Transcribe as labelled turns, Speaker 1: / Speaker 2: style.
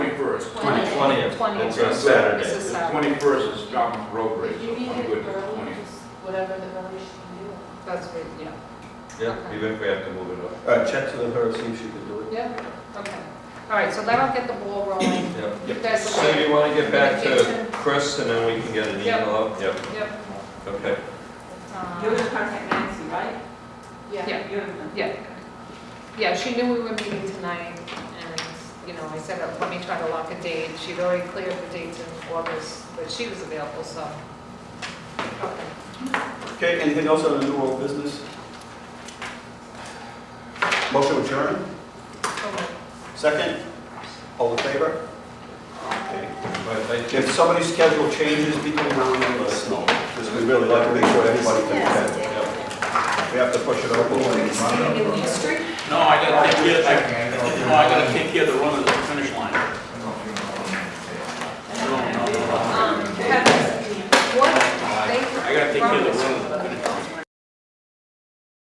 Speaker 1: 20th.
Speaker 2: Twentieth.
Speaker 1: It's a Saturday.
Speaker 2: It's a
Speaker 3: The
Speaker 2: Saturday.
Speaker 3: twenty-first is government road race,
Speaker 4: You
Speaker 3: so
Speaker 4: need
Speaker 3: I'm
Speaker 4: it
Speaker 3: good with the
Speaker 4: early,
Speaker 3: twentieth.
Speaker 4: just whatever the earliest you can
Speaker 2: That's great, yeah.
Speaker 1: Yeah, even if we have to move it up.
Speaker 5: All right, check to the her, see if she can do it.
Speaker 2: Yeah, okay. All right, so that'll get the ball rolling.
Speaker 1: Yeah.
Speaker 2: You guys
Speaker 1: So
Speaker 2: will,
Speaker 1: you want to get back to Chris and then we can get an email
Speaker 2: Yep.
Speaker 1: out? Yep.
Speaker 2: yep.
Speaker 1: Okay.
Speaker 4: do. You're
Speaker 2: um,
Speaker 4: gonna contact Nancy, right?
Speaker 2: Yeah.
Speaker 4: You're gonna-
Speaker 2: Yeah. Yeah, she knew we were meeting tonight, and, you know, I said, uh, let me try to lock a date. She'd already cleared the dates in August, but she was available, so. Okay.
Speaker 5: Okay, anything else on the new world business? Motion adjourned, second, all in favor? Okay.
Speaker 1: Well, thank you.
Speaker 5: If somebody's schedule changes, be coming around and let us know, because we really like to make sure everybody can attend. We have to push it over.
Speaker 6: No, I gotta take care, I, no, I gotta take care of the run of the finish line. No, no, no, no.
Speaker 2: Um, Kevin, what,
Speaker 6: I gotta
Speaker 2: they
Speaker 6: take care of the
Speaker 1: Uh,
Speaker 2: promised
Speaker 6: run of the finish line.